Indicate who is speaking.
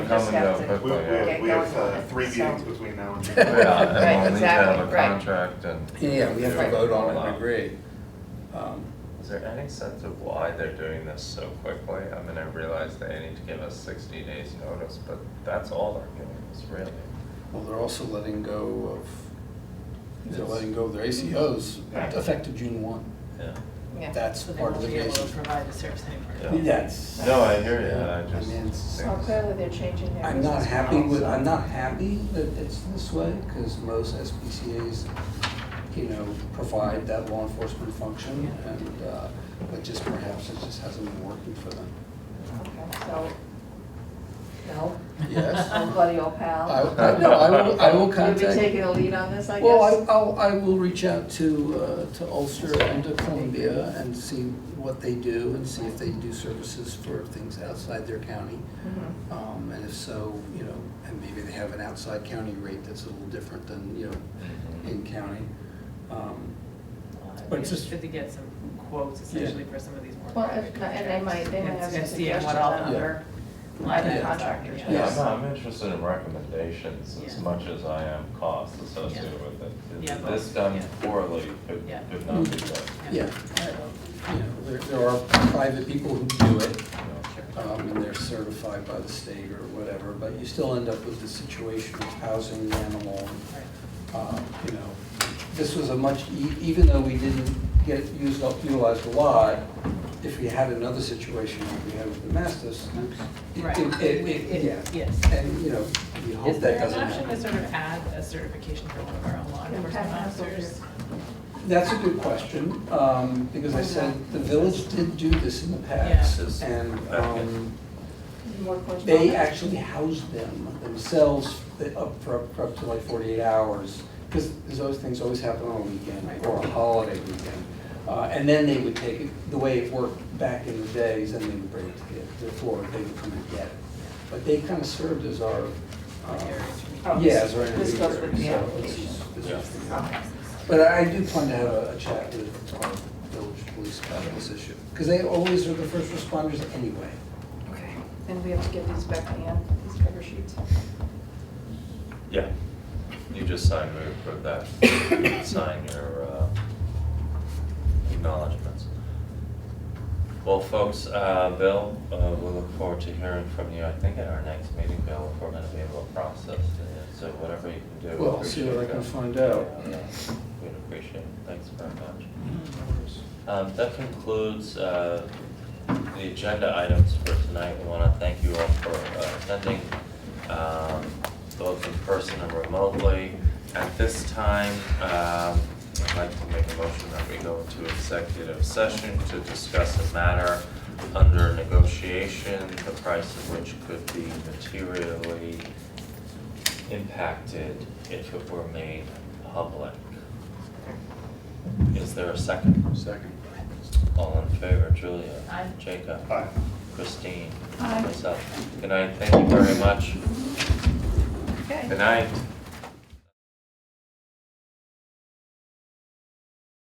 Speaker 1: coming down
Speaker 2: discussed it.
Speaker 1: quickly.
Speaker 3: We, we
Speaker 1: yeah.
Speaker 3: have, we have uh, three
Speaker 2: So-
Speaker 3: meetings between now and then.
Speaker 1: Yeah, and
Speaker 2: Right,
Speaker 1: we'll need to have
Speaker 2: exactly,
Speaker 1: a
Speaker 2: right.
Speaker 1: contract and,
Speaker 4: Yeah, we have to
Speaker 2: Right.
Speaker 4: vote on it
Speaker 1: Wow.
Speaker 4: and agree. Um,
Speaker 1: is there any sense of why they're doing this so quickly? I mean, I realize they need to give us sixty days notice, but that's all they're giving us really.
Speaker 4: Well, they're also letting go of, they're letting go of their ACOs
Speaker 3: Right.
Speaker 4: effective June one.
Speaker 1: Yeah.
Speaker 2: Yeah.
Speaker 4: That's
Speaker 5: So they
Speaker 4: part of
Speaker 5: won't
Speaker 4: the
Speaker 5: be able to
Speaker 4: basis.
Speaker 5: provide the service anymore.
Speaker 1: Yeah.
Speaker 4: That's.
Speaker 1: No, I hear you, I
Speaker 4: I mean,
Speaker 1: just
Speaker 4: it's-
Speaker 2: Well,
Speaker 1: think,
Speaker 2: clearly they're changing their
Speaker 4: I'm not
Speaker 2: business
Speaker 4: happy
Speaker 2: model,
Speaker 4: with,
Speaker 2: so-
Speaker 4: I'm not happy that it's this way, because most SPCA's, you know, provide that law enforcement function, and, uh, but just perhaps it just hasn't been working for them.
Speaker 2: Okay, so, no,
Speaker 4: Yes?
Speaker 2: old buddy, old
Speaker 4: I,
Speaker 2: pal.
Speaker 4: I- no, I will, I will contact.
Speaker 2: You'll be taking a lead on this, I guess?
Speaker 4: Well, I, I'll, I will reach out to, uh, to Ulster and to Columbia and see what they do and see if they do services for things outside their county.
Speaker 2: Mhm.
Speaker 4: Um, and if so, you know, and maybe they have an outside county rate that's a little different than, you know, in county. Um, But
Speaker 5: Uh, It's
Speaker 4: just-
Speaker 5: just good to get some quotes essentially for some of these more
Speaker 2: Well, if
Speaker 5: private
Speaker 2: not- and
Speaker 5: contracts.
Speaker 2: they might- they might have some
Speaker 5: And see what
Speaker 2: suggestions
Speaker 5: all
Speaker 2: on
Speaker 5: the other line
Speaker 2: Yeah.
Speaker 5: items are,
Speaker 2: Contractors.
Speaker 5: yeah.
Speaker 1: yeah,
Speaker 4: Yes.
Speaker 1: I'm, I'm interested in recommendations as
Speaker 5: Yeah.
Speaker 1: much as I am costs associated
Speaker 5: Yeah.
Speaker 1: with it.
Speaker 5: Yeah,
Speaker 1: This
Speaker 5: both,
Speaker 1: done
Speaker 5: yeah.
Speaker 1: poorly could,
Speaker 5: Yeah.
Speaker 1: could not be done.
Speaker 4: Yeah, I- you know, there, there are private people who do it,
Speaker 1: you know.
Speaker 4: um, and they're certified by the state or whatever, but you still end up with the situation of housing the animal and
Speaker 5: Right.
Speaker 4: uh, you know, this was a much, e- even though we didn't get, used up, utilized a lot, if we had another situation like we had with the Masters, it-
Speaker 5: Right.
Speaker 4: it- it- it-
Speaker 5: It-
Speaker 4: yeah.
Speaker 5: Yes.
Speaker 4: And, you know, we hope
Speaker 5: Is there
Speaker 4: that
Speaker 5: an
Speaker 4: doesn't
Speaker 5: option to
Speaker 4: happen.
Speaker 5: sort of add a certification for one of our law
Speaker 2: Yeah,
Speaker 5: enforcement
Speaker 2: Pat Hansel
Speaker 5: officers?
Speaker 4: That's a good question, um, because I said, the village did do this in the past.
Speaker 1: Yeah.
Speaker 4: And um,
Speaker 2: More
Speaker 4: they
Speaker 2: correspondence?
Speaker 4: actually housed them themselves for up for for up to like 48 hours, because those things always happen on a weekend or a holiday weekend. Uh, And then they would take it, the way it worked back in the days, and they would bring it to the- the floor, they would come and get it. But they kind of served as our, uh,
Speaker 5: Like area to meet.
Speaker 2: Oh, this-
Speaker 4: yeah, as our
Speaker 2: this goes with the
Speaker 4: intermediary, so this
Speaker 2: application.
Speaker 4: is- this is the-
Speaker 2: Okay.
Speaker 4: But I I do plan to have a a chat with our village police about this issue, because they always are the first responders anyway.
Speaker 2: Okay, and we have to give these back to Ann, these cover sheets.
Speaker 1: Yeah, you just signed me for that, sign your uh, acknowledgements. Well, folks, uh, Bill, uh, we look forward to hearing from you, I think at our next meeting, Bill, if we're gonna be able to process it, so whatever you can do. we
Speaker 4: Well, I'll see what I
Speaker 1: appreciate
Speaker 4: can
Speaker 1: that.
Speaker 4: find out.
Speaker 1: Yeah, yeah, We'd appreciate it, thanks very much. Um, That concludes uh, the agenda items for tonight. We want to thank you all for uh, attending, um, both in person and remotely. At this time, um, I'd like to make a motion that we go into executive session to discuss a matter under negotiation, the price of which could be materially impacted if it were made public. Is there a second?
Speaker 4: Second.
Speaker 1: All in favor, Julia?
Speaker 5: Aye.
Speaker 1: Jacob?
Speaker 3: Aye.
Speaker 1: Christine?
Speaker 2: Aye.
Speaker 1: Myself. Good night, thank you very much.
Speaker 2: Okay.
Speaker 1: Good night.